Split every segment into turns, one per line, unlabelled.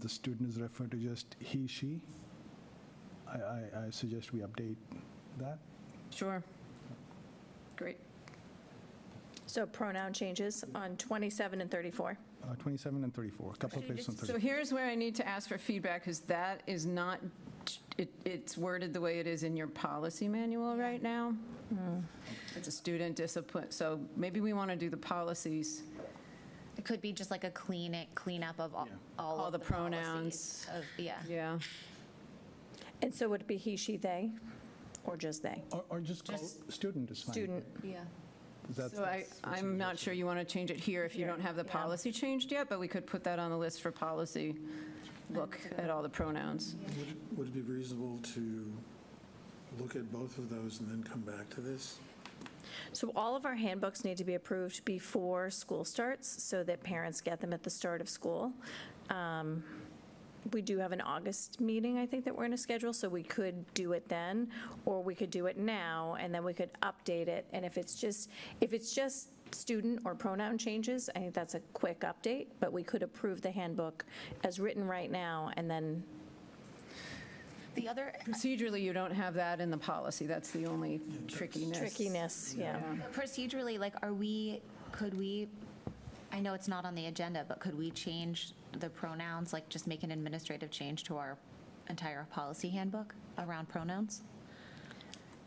the student is referred to just he, she, I, I, I suggest we update that.
Sure. Great.
So pronoun changes on 27 and 34.
Uh, 27 and 34, a couple of places on
So
34.
here's where I need to ask for feedback, because that is not, it, it's worded the way it is in your policy manual right now.
Hmm.
It's a student discipline, so maybe we want to do the policies.
It could be just like a clean it, cleanup of all, all
All
of
the
the policies
pronouns.
Of, yeah.
Yeah.
And so would it be he, she, they, or just they?
Or, or just call
Just
student is fine.
Student,
Yeah.
That's-
So I,
that's what's
I'm not sure you want to change it here if you don't have the
Yeah.
policy changed yet, but we could put that on the list for policy. Look at all the pronouns.
Would it- Would it be reasonable to look at both of those and then come back to this?
so all of our handbooks need to be approved before school starts so that parents get them at the start of school. Um, We do have an August meeting, I think, that we're going to schedule, so we could do it then, or we could do it now, and then we could update it. And if it's just, if it's just student or pronoun changes, I think that's a quick update, but we could approve the handbook as written right now, and then
The other
Procedurally, you don't have that in the policy. That's the only trickiness.
trickiness, yeah.
procedurally, like, are we, could we, I know it's not on the agenda, but could we change the pronouns, like just make an administrative change to our entire policy handbook around pronouns?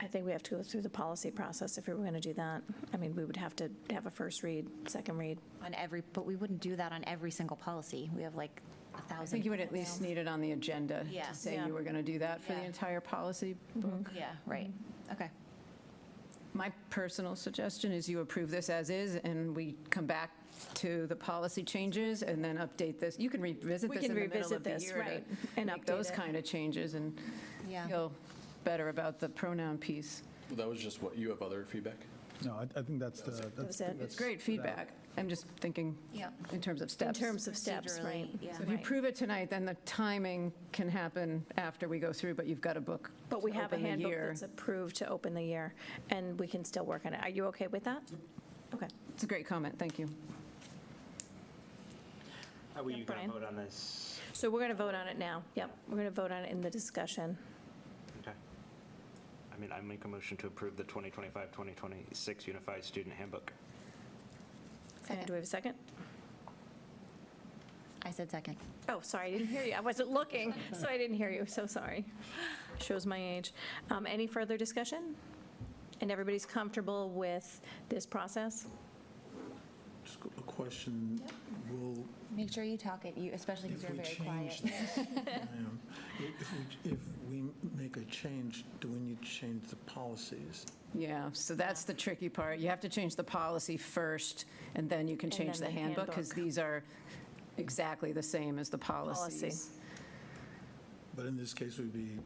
I think we have to go through the policy process if we were going to do that. I mean, we would have to have a first read, second read.
On every, but we wouldn't do that on every single policy. We have like a
I
thousand.
think you would at least need it on the agenda
Yeah.
to say
Yeah. Mm-hmm.
you were going to do that for the
Yeah.
entire policy book.
Yeah, right.
Mm-hmm.
Okay.
My personal suggestion is you approve this as is, and we come back to the policy changes and then update this. You can revisit
We
this in
can
the middle
revisit
of the
this,
year
right,
to
and
make those
update it.
kind of changes and
Yeah.
feel better about the pronoun piece.
Well, That was just what, you have other feedback?
No, I, I think that's the, that's,
was it.
that's-
Great feedback. I'm just thinking
Yeah.
in terms of
In
steps.
terms of steps, right?
Procedurally, yeah.
So if you
Right.
prove it tonight, then the timing can happen after we go through, but you've got a book
But we
to
have a
open the
handbook
year.
that's approved to open the year, and we can still work on it. Are you okay with that? Okay.
It's a great comment, thank you.
Are we going
Brian?
to vote on this?
So we're going to vote on it now. Yep, we're going to vote on it in the discussion.
Okay. I mean, I make a motion to approve the 2025-2026 Unified Student Handbook.
And do we have a second?
I said second.
Oh, sorry, I didn't hear you. I wasn't looking, so I didn't hear you. So sorry. Shows my age. Um, Any further discussion? And everybody's comfortable with this process?
Just a question, will,
Make sure you talk it, you, especially because
if
you're
we
very
change
quiet.
this, um, if we, if we make a change, do we need to change the policies?
Yeah, so that's the tricky part. You have to change the policy first, and then you can
And
change the
then the
handbook, because
handbook.
these are exactly the same as the policies.
But in this case, we'd be,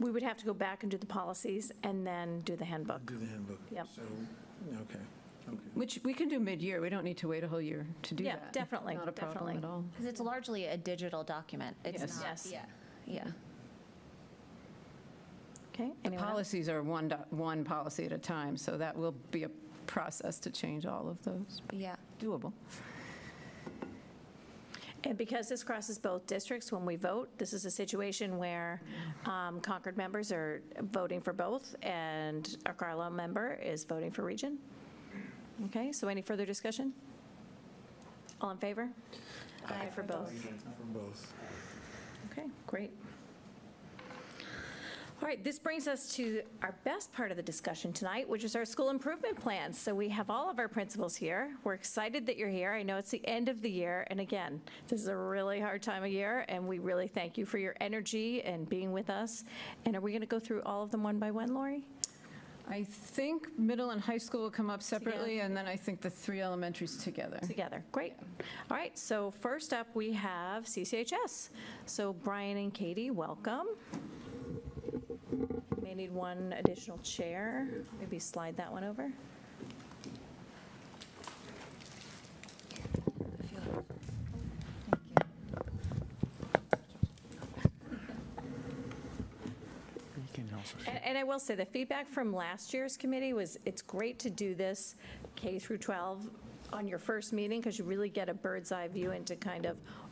We would have to go back and do the policies and then do the handbook.
do the handbook.
Yep.
So, okay, okay.
Which we can do mid-year, we don't need to wait a whole year to do
Yeah,
that.
definitely,
Not a problem
definitely.
at all.
Because it's largely a digital document.
Yes.
It's not.
Yes.
Yeah, yeah.
Okay?
The
anyone else?
policies are one, doc- one policy at a time, so that will be a process to change all of those.
Yeah.
Doable.
And because this crosses both districts, when we vote, this is a situation where um, Concord members are voting for both, and a Carlisle member is voting for region. Okay, so any further discussion? All in favor? Aye for both.
From both.
Okay, great. All right, this brings us to our best part of the discussion tonight, which is our school improvement plans. So we have all of our principals here. We're excited that you're here. I know it's the end of the year, and again, this is a really hard time of year, and we really thank you for your energy and being with us. And are we going to go through all of them one by one, Lori?
I think middle and high school will come up separately, and then I think the three elementaries together.
Together, great. All right, so first up, we have CCHS. So Brian and Katie, welcome. May need one additional chair, maybe slide that one over. And- And I will say, the feedback from last year's committee was, it's great to do this K through 12 on your first meeting, because you really get a bird's eye view into kind of